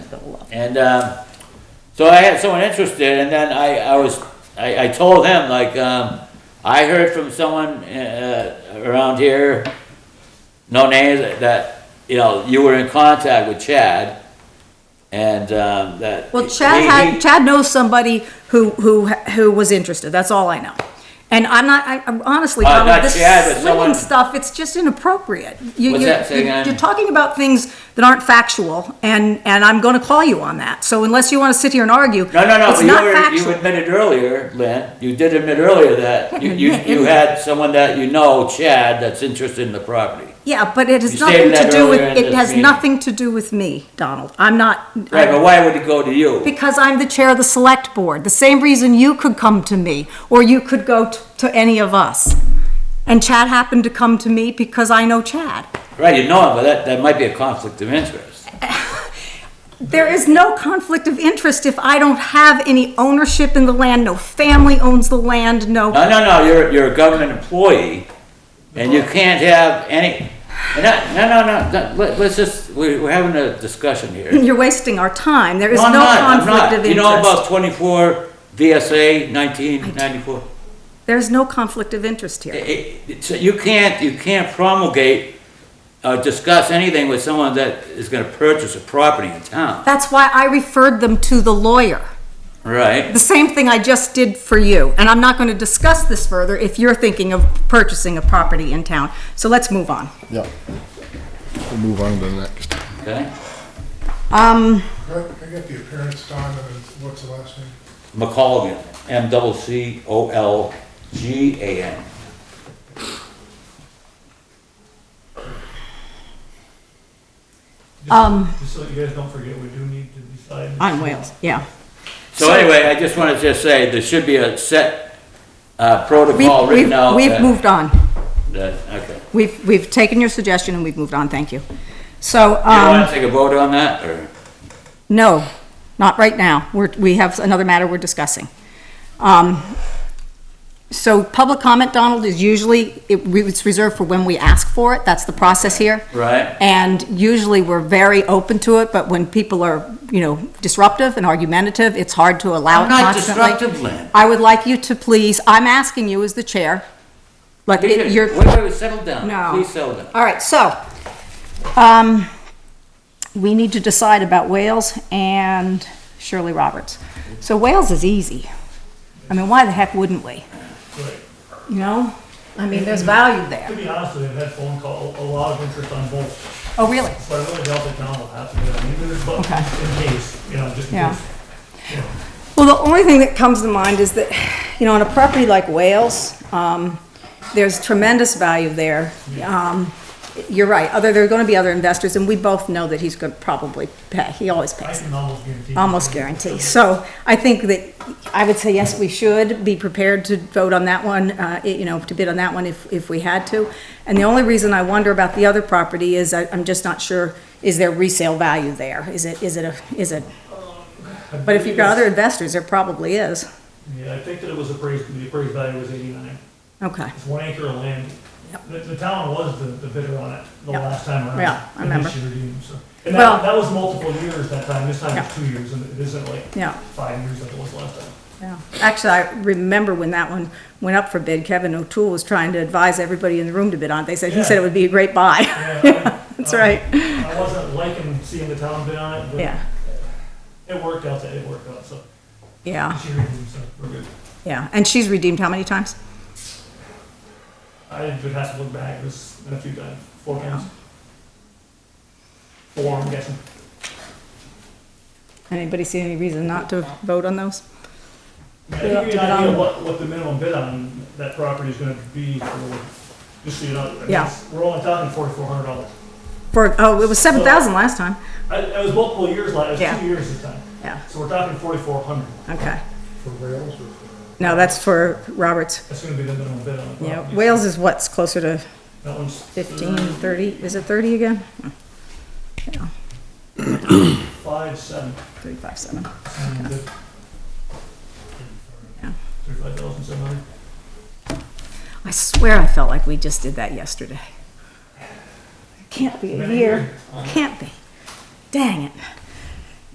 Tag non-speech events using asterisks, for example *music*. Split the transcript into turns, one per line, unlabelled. go up.
And um, so I had someone interested, and then I, I was I, I told him like um, I heard from someone uh, around here, no names, that you know you were in contact with Chad, and um, that
Well, Chad
he-
had,
he-
Chad knows somebody who, who, who was interested, that's all I know. And I'm not, I- I'm honestly,
Uh,
Tom,
not
this
Chad, but
swinging
someone-
stuff, it's just inappropriate. You-
What's
you-
that? Say
you-
again?
You're talking about things that aren't factual, and, and I'm gonna call you on that, so unless you wanna sit here and argue,
No, no, no.
it's
but
not
you, were, you
factual.
admitted earlier, Lynn. You did admit earlier that
*laughs*
you, you,
admit
you
anything.
had someone that you know, Chad, that's interested in the property.
Yeah, but it has
You
nothing
stated
to
that
do with,
earlier in
it
this
has
meeting.
nothing to do with me, Donald, I'm not.
Right, but why would it go to you?
Because I'm the chair of the select board, the same reason you could come to me, or you could go t- to any of us. And Chad happened to come to me because I know Chad.
Right, you know him, but that, that might be a conflict of interest.
There is no conflict of interest if I don't have any ownership in the land, no family owns the land, no.
No, no, no, you're, you're a government employee, and you can't have any, and that, no, no, no, no, let, let's just, we're, we're having a discussion here.
You're wasting our time, there is
No, I'm
no
not, I'm
conflict
not.
of
You know
interest.
about twenty-four VSA nineteen ninety-four?
There's no conflict of interest
Eh,
here.
So you can't, you can't promulgate, uh, discuss anything with someone that is gonna purchase a property in town,
That's why I referred them to the lawyer.
right?
The same thing I just did for you, and I'm not gonna discuss this further if you're thinking of purchasing a property in town. So let's move on.
Yeah. We'll move on to the next.
Okay?
Um,
Can I get the appearance, Don, and then what's the last name?
McColgan, M double C O L G A N.
Um,
Just so you guys don't forget, we do need to decide.
on Wales, yeah.
So anyway, I just wanna just say, there should be a set, uh,
We've,
protocol
we've,
written out.
we've
that-
moved on.
that- Okay.
We've, we've taken your suggestion and we've moved on, thank you. So,
Do you wanna
um,
take a vote on that, or?
no, not right now. We're, we have another matter we're discussing. Um, so public comment, Donald, is usually, it, we- it's reserved for when we ask for it. That's the process here.
Right.
And usually we're very open to it, but when people are, you know, disruptive and argumentative, it's hard to allow it
I'm not
constantly.
disruptive, Lynn.
I would like you to please, I'm asking you as the chair, like,
Wait,
it- you're.
wait, wait, settle down.
No.
Please settle down.
All right, so, um, we need to decide about Wales and Shirley Roberts. So Wales is easy. I mean, why the heck wouldn't we?
Right.
You know? I mean, there's value
To
there.
be honest with you, I've had phone call, a lot of interest on both,
Oh, really?
but I really doubt that Don will have to get on either, but
Okay.
in case, you know, just in
Yeah.
case. you know.
Well, the only thing that comes to mind is that, you know, on a property like Wales, um, there's tremendous value there. Um, you're right, other, there are gonna be other investors, and we both know that he's gonna probably pay, he always
I
pays.
can almost guarantee.
Almost guarantee. So I think that, I would say, yes, we should be prepared to vote on that one, uh, it- you know, to bid on that one if, if we had to. And the only reason I wonder about the other property is I, I'm just not sure, is there resale value there? Is it, is it a, is it,
I
but if you've got other
believe
investors, there probably is.
it's- Yeah, I think that it was appraised, the appraised value was eighty-nine.
Okay,
It's one acre of land.
Yep.
The, the town was the, the bidder on it the
Yep.
last time around.
Yeah, I
and then
remember.
she redeemed, so. And
Well-
that, that was multiple years that time. This time
Yeah.
it's two years and it isn't like
yeah,
five years like it was last time.
yeah. Actually, I remember when that one went up for bid, Kevin O'Toole was trying to advise everybody in the room to bid on it. They said, he said it would be a great buy.
Yeah, I-
*laughs* That's
um,
right.
I wasn't liking seeing the town bid on it,
Yeah,
but it worked out, that it worked out, so.
yeah,
she redeemed, so we're good.
yeah. And she's redeemed how many times?
I would have to look back, it was a few times, four times. Four, I'm guessing.
Anybody see any reason not to vote on those?
I
Put it up
mean,
to
I give you an
the-
idea of what, what the minimum bid on that property is gonna be for, just so you know. I mean,
Yeah.
it's- We're only talking forty-four hundred dollars.
For, oh, it was seven thousand last time.
I, it was multiple years, like, it
Yeah.
was two years this time,
Yeah,
so we're talking forty-four hundred.
okay.
For Wales or for?
No, that's for Roberts.
That's gonna be the minimum bid on the
Yeah,
property.
Wales is what's closer to
That one's.
fifteen,
Mm.
thirty, is it thirty again?
Five, seven.
Thirty-five, seven. Yeah.
Thirty-five thousand seven hundred.
I swear I felt like we just did that yesterday. Can't be a year, can't be. Dang it.